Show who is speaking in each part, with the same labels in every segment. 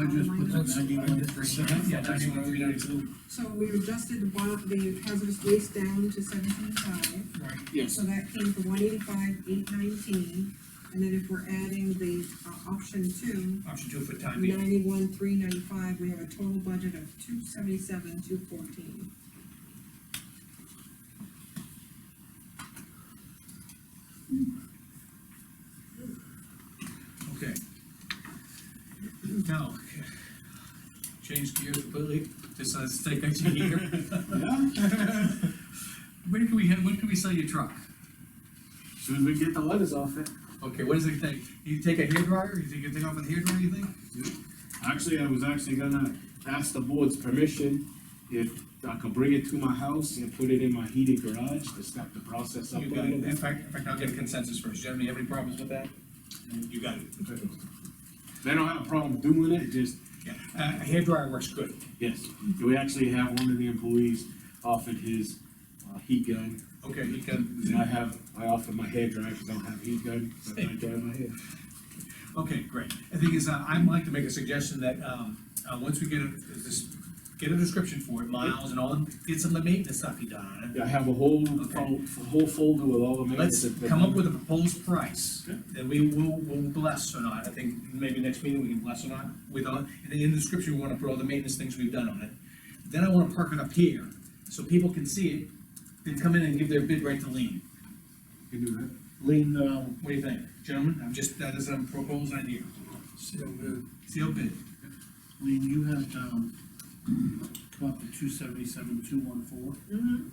Speaker 1: I just put the ninety-one percent.
Speaker 2: Yeah, ninety-one, three ninety-two.
Speaker 3: So we adjusted the bond, the hazardous waste down to seventeen five.
Speaker 2: Right.
Speaker 3: So that came from one eighty-five, eight nineteen, and then if we're adding the, uh, option two,
Speaker 2: Option two for time being.
Speaker 3: ninety-one, three ninety-five, we have a total budget of two seventy-seven, two fourteen.
Speaker 2: Okay. Now, change gears completely, just let's take a gear. When can we, have- when can we sell your truck?
Speaker 1: Soon as we get the letters off it.
Speaker 2: Okay, what does it take? You take a hair dryer, you think you take off with a hair dryer, you think?
Speaker 1: Actually, I was actually gonna ask the board's permission if I could bring it to my house and put it in my heated garage to step the process up a
Speaker 2: You got
Speaker 1: little
Speaker 2: it, in
Speaker 1: bit.
Speaker 2: fact, in fact, I'll get a consensus first, do you have any, have any problems with that? You got it.
Speaker 1: They don't have a problem doing it, just,
Speaker 2: Yeah, uh, a hair dryer works good.
Speaker 1: yes, we actually have one of the employees offered his, uh, heat gun.
Speaker 2: Okay, you can.
Speaker 1: And I have, I offered my hair dryer, 'cause I don't have heat gun, but I dry my hair.
Speaker 2: Okay, great. The thing is, uh, I'd like to make a suggestion that, um, uh, once we get a, this, get a description for it, miles and all, get some of the maintenance stuff you done on
Speaker 1: I have a whole,
Speaker 2: Okay.
Speaker 1: fol- whole folder with all the
Speaker 2: it.
Speaker 1: maintenance.
Speaker 2: Let's
Speaker 1: that they've
Speaker 2: come up
Speaker 1: done.
Speaker 2: with a proposed price
Speaker 1: Yeah.
Speaker 2: that we will, will bless or not. I think maybe next meeting we can bless or not with all, and then in the description, we wanna put all the maintenance things we've done on it. Then I wanna park it up here, so people can see it, then come in and give their bid right to Lean.
Speaker 1: Can do that.
Speaker 4: Lean, um,
Speaker 2: What do you think, gentlemen? I'm just, that is a proposed idea. Seal bid.
Speaker 4: Lean, you had, um, come up to two seventy-seven, two one four,
Speaker 3: Mm-hmm.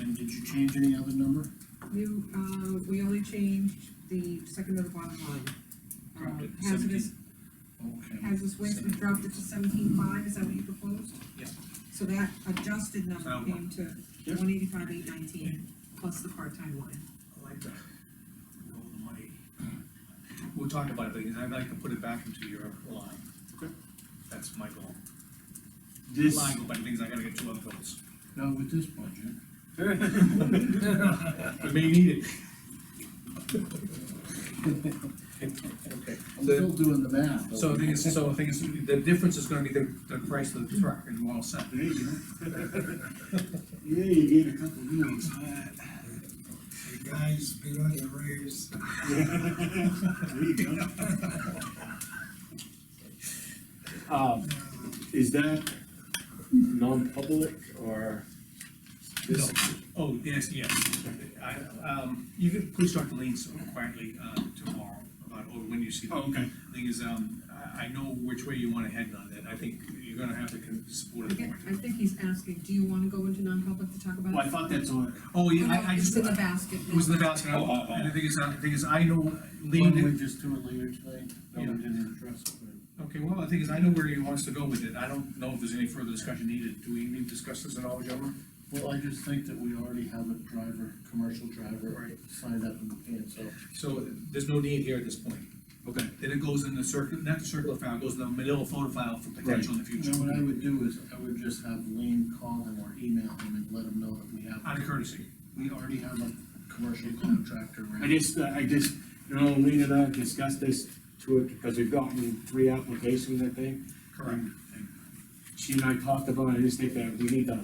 Speaker 4: and did you change any other number?
Speaker 3: You, uh, we only changed the second to the bottom line. Uh,
Speaker 2: Dropped it to
Speaker 3: Hazardous,
Speaker 2: 17. Okay.
Speaker 3: hazardous waste, we dropped it to seventeen five, is that what you proposed?
Speaker 2: Yeah.
Speaker 3: So that adjusted number
Speaker 2: Sound
Speaker 3: came to
Speaker 1: Yeah.
Speaker 3: one eighty-five, eight nineteen, plus the part-time line.
Speaker 2: I like that. Roll the money. We'll talk about it, but I'd like to put it back into your line.
Speaker 1: Okay.
Speaker 2: That's my goal.
Speaker 1: This.
Speaker 2: Line, but things I gotta get two other goals.
Speaker 4: Now with this budget,
Speaker 2: We may need
Speaker 4: I'm still doing the math.
Speaker 2: it. So the thing is, so the thing is, the difference is gonna be the, the price of the truck and we're all set.
Speaker 1: There you go. Yeah, you gave a couple meals.
Speaker 5: The guys bid on the raise.
Speaker 1: There you go. Um, is that non-public or?
Speaker 2: No. Oh, yes, yes. I, um, you can, please talk to Lean so quietly, uh, tomorrow about, or when you see. them.
Speaker 1: Oh, okay.
Speaker 2: Thing is, um, I, I know which way you wanna head on that. I think you're gonna have to con- support
Speaker 3: I
Speaker 2: it
Speaker 3: get-
Speaker 2: more.
Speaker 3: I think he's asking, do you wanna go into non-public to talk about
Speaker 1: Well, I
Speaker 3: it?
Speaker 1: thought that's all.
Speaker 2: Oh, yeah, I, I
Speaker 3: It's
Speaker 2: just.
Speaker 3: in the basket.
Speaker 2: It was in the basket,
Speaker 1: Oh, oh, oh.
Speaker 2: and the thing is, uh, the thing is, I know,
Speaker 4: Why don't
Speaker 2: Lean,
Speaker 4: we just do it later today? That way we didn't address it.
Speaker 2: okay, well, the thing is, I know where he wants to go with it, I don't know if there's any further discussion needed, do we need to discuss this at all, gentlemen?
Speaker 4: Well, I just think that we already have a driver, commercial driver,
Speaker 2: Right.
Speaker 4: signed up in the can, so.
Speaker 2: So, there's no need here at this point,
Speaker 1: Okay.
Speaker 2: then it goes in the circuit, not the circular file, it goes in the manila photo file for potential in the
Speaker 4: You
Speaker 2: future,
Speaker 4: know, what I would do is, I would just have Lean call him or email him and let him know that we have,
Speaker 2: out of courtesy.
Speaker 4: we already have a commercial contractor.
Speaker 1: I
Speaker 4: ready.
Speaker 1: just, uh, I just, you know, Lena and I discussed this to it because we've gotten three applications, I think.
Speaker 2: Mm-hmm.
Speaker 1: She and I talked about, it. I just think that we need to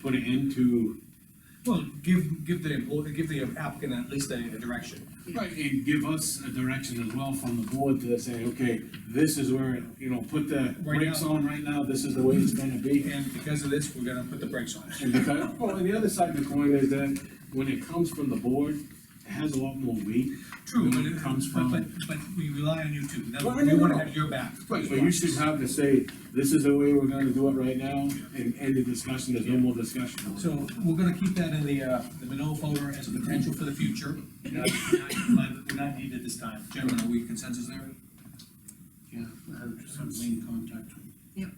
Speaker 1: put it into
Speaker 2: Well, give, give the, employee- give the applicant at least a a direction.
Speaker 1: Right, and give us a direction as well from the board to say, okay, this is where, you know, put the
Speaker 2: Right
Speaker 1: brakes
Speaker 2: now.
Speaker 1: on right now, this is the way it's gonna be.
Speaker 2: And because of this, we're gonna put the brakes on it.
Speaker 1: And because, well, and the other side of the coin is that when it comes from the board, it has a lot more weight.
Speaker 2: True,
Speaker 1: When
Speaker 2: but
Speaker 1: it
Speaker 2: it
Speaker 1: comes
Speaker 2: but,
Speaker 1: from-
Speaker 2: but, but we rely on you too, That's-
Speaker 1: Well, I
Speaker 2: we
Speaker 1: know,
Speaker 2: wanna
Speaker 1: no.
Speaker 2: have your back.
Speaker 1: But you should have to say, this is the way we're gonna do it right now, and end the discussion, there's no more discussion.
Speaker 2: So we're gonna keep that in the, uh, the manila folder as a potential for the future. Not, not, we're not needed this time. Gentlemen, are we consensus there?
Speaker 4: Yeah, I would just have Lean contact him.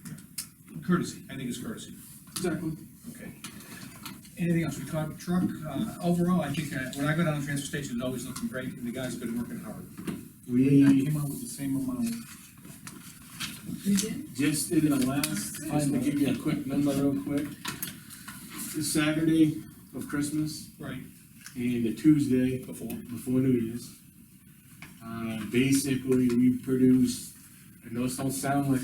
Speaker 2: Courtesy, I think it's courtesy.
Speaker 1: Exactly.
Speaker 2: Okay. Anything else? We talked truck, uh, overall, I think, uh, when I go down to the transfer station, it's always looking great, and the guys have been working hard.
Speaker 4: I
Speaker 1: We
Speaker 4: came out with the same amount.
Speaker 3: You did?
Speaker 1: just did the last, just to give you a quick number real quick. This Saturday of Christmas
Speaker 2: Right.
Speaker 1: and the Tuesday
Speaker 2: Before.
Speaker 1: before New Year's. Uh, basically, we produced and those don't sound like